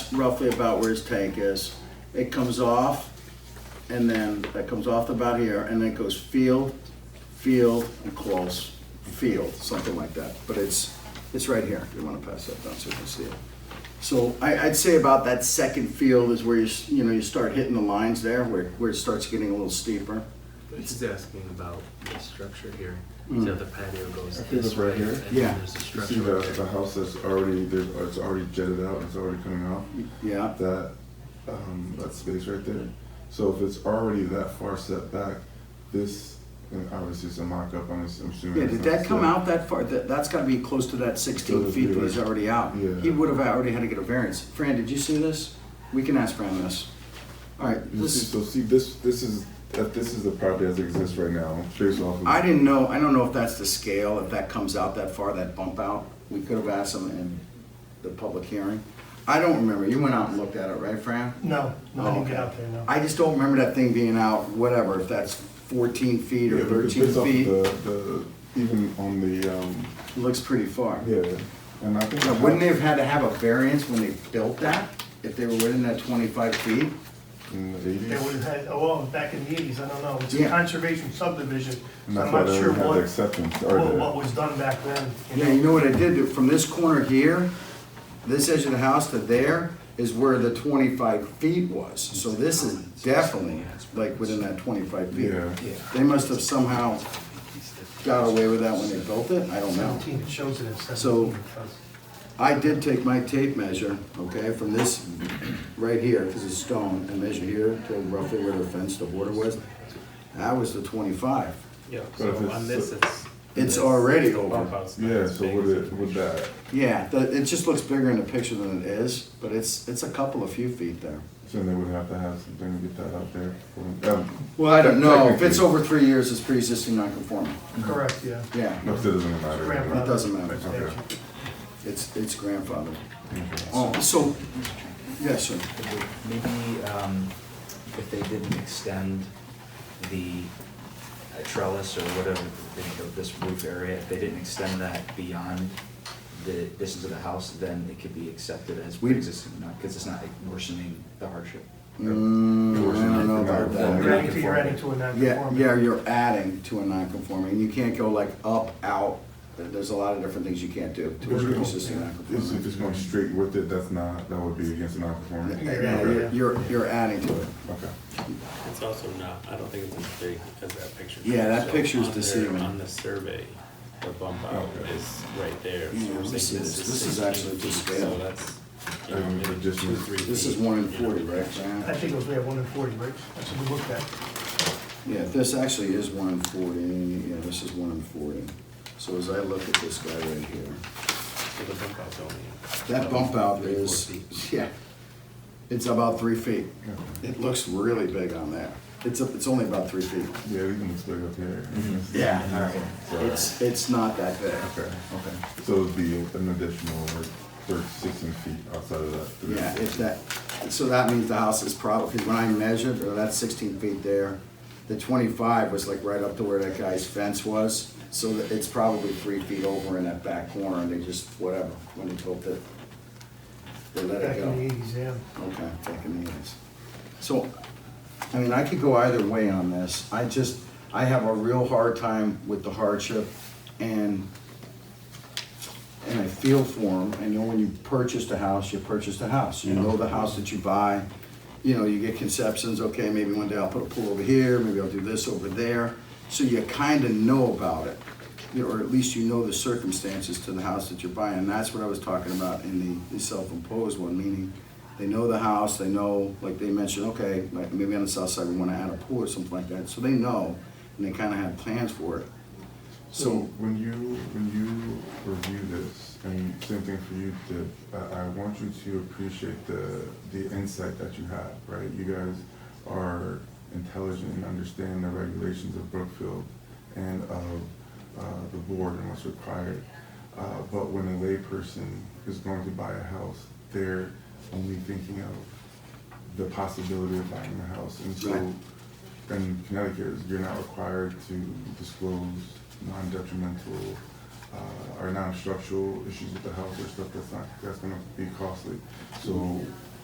that's roughly about where his tank is. It comes off, and then that comes off about here, and then it goes field, field, and close, field, something like that. But it's, it's right here, if you wanna pass that down so you can see it. So I, I'd say about that second field is where you, s- you know, you start hitting the lines there, where, where it starts getting a little steeper. He's asking about the structure here. Mm. So the patio goes I think this it's right way. here. and then Yeah. There's a You structure see the, right the there. house that's already, there's, it's already jetted out, it's already coming out, Yeah, that, um, that space right there. So if it's already that far set back, this, and obviously it's a mock-up, I'm ass- I'm assuming. yeah, it's did not that come set. out that far? That, that's gotta be close to that sixteen feet that he's already out. Yeah. He would've already had to get a variance. Fran, did you see this? We can ask Fran this. All right, You see, this, so see, this, this is, that this is the property as it exists right now, based off of. I didn't know, I don't know if that's the scale, if that comes out that far, that bump out. We could've asked him in the public hearing. I don't remember. You went out and looked at it, right, Fran? No, no, Oh, I didn't get out there, no. I just don't remember that thing being out, whatever, if that's fourteen feet Yeah, or because thirteen based off feet, The, the, even on the, um, looks pretty far. yeah, and I think. Now, wouldn't they have had to have a variance when they built that, if they were within that twenty-five feet? In the eighties. They would have had, oh, well, back in the eighties, I don't know, it's Yeah. a conservation subdivision, And so that's I'm why not they sure didn't have the what, acceptance, or what what the, was done back then. you Yeah, know? you know what I did, from this corner here, this edge of the house to there is where the twenty-five feet was. So this is definitely like within that twenty-five feet. Yeah. Yeah. They must have somehow He's the- got away with that when they built it, I don't know. Seventeen, it shows it as So- seventeen. because- I did take my tape measure, okay, from this right here, because it's stone, and measure here to roughly where the fence, the border was. That was the twenty-five. Yeah, if so it's- on this, it's. It's this already over. bump out's not yeah, as so big would as it, would that, Yeah, the, it just looks bigger in the picture than it is, but it's, it's a couple of few feet there. so they would have to have something to get that out there. for- um, Well, I don't know, if it's Technically. over three years, it's pre-existing non-conforming, Correct, yeah. yeah, No, it doesn't matter. it doesn't matter, Okay. it's, it's grandfathered. Okay. Oh, so, yes, sir, Maybe um, if they didn't extend the uh, trellis or whatever, you know, this roof area, if they didn't extend that beyond the distance of the house, then it could be accepted as pre-existing, because it's not worsening the hardship. Mm, I don't know about that. You're adding to, you're adding to a Yeah, non-conforming. yeah, you're adding to a non-conforming, you can't go like up, out, there's a lot of different things you can't do to a pre-existing It's if non-conforming. it's going straight with it, that's not, that would be against the non-conforming. Yeah, you're- you're, you're adding to it. Okay. It's also not, I don't think it's as big as that picture. Yeah, that shows. picture's On there- deceiving. On the survey, the bump out Okay. is right there. So Yeah, we're let me saying see this. This is 16 actually feet, just scale. So that's, you Um, know, it maybe two, just was- three feet. This is one in you know. forty, right, Fran? I think it was, we have one in forty, right? That's what we looked at. Yeah, this actually is one in forty, yeah, this is one in forty. So as I look at this guy right here, So the bump out's only- that bump out Three, four is, feet. yeah, it's about three feet. Yeah. It looks really big on there. It's, a- it's only about three feet. Yeah, we can explain up here. Yeah, All right. It's, it's not that big. Okay, okay. So it'd be an additional like thirty, sixteen feet outside of that. three. Yeah, if that, so that means the house is probably, because when I measured, or that's sixteen feet there, the twenty-five was like right up to where that guy's fence was, so that it's probably three feet over in that back corner, and they just, whatever, when they built it, they let Back it in the go. eighties, yeah. Okay, back in the eighties. So, I mean, I could go either way on this, I just, I have a real hard time with the hardship, and and I feel for them. I know when you purchased a house, you purchased a house. You know the house that you buy. You know, you get conceptions, okay, maybe one day I'll put a pool over here, maybe I'll do this over there. So you kind of know about it, you know, or at least you know the circumstances to the house that you're buying. And that's what I was talking about in the, the self-imposed one, meaning they know the house, they know, like they mentioned, okay, like maybe on the south side we want to add a pool or something like that. So they know, and they kind of have plans for it. So So, when you, when you review this, and same thing for you, Dip, I, I want you to appreciate the, the insight that you have, right? You guys are intelligent and understand the regulations of Brookfield and of, uh, the board and what's required. Uh, but when a layperson is going to buy a house, they're only thinking of the possibility of buying a house. And so Right. in Connecticut, you're not required to disclose non-detrimental uh, or non-structural issues with the house or stuff that's not, that's gonna be costly. So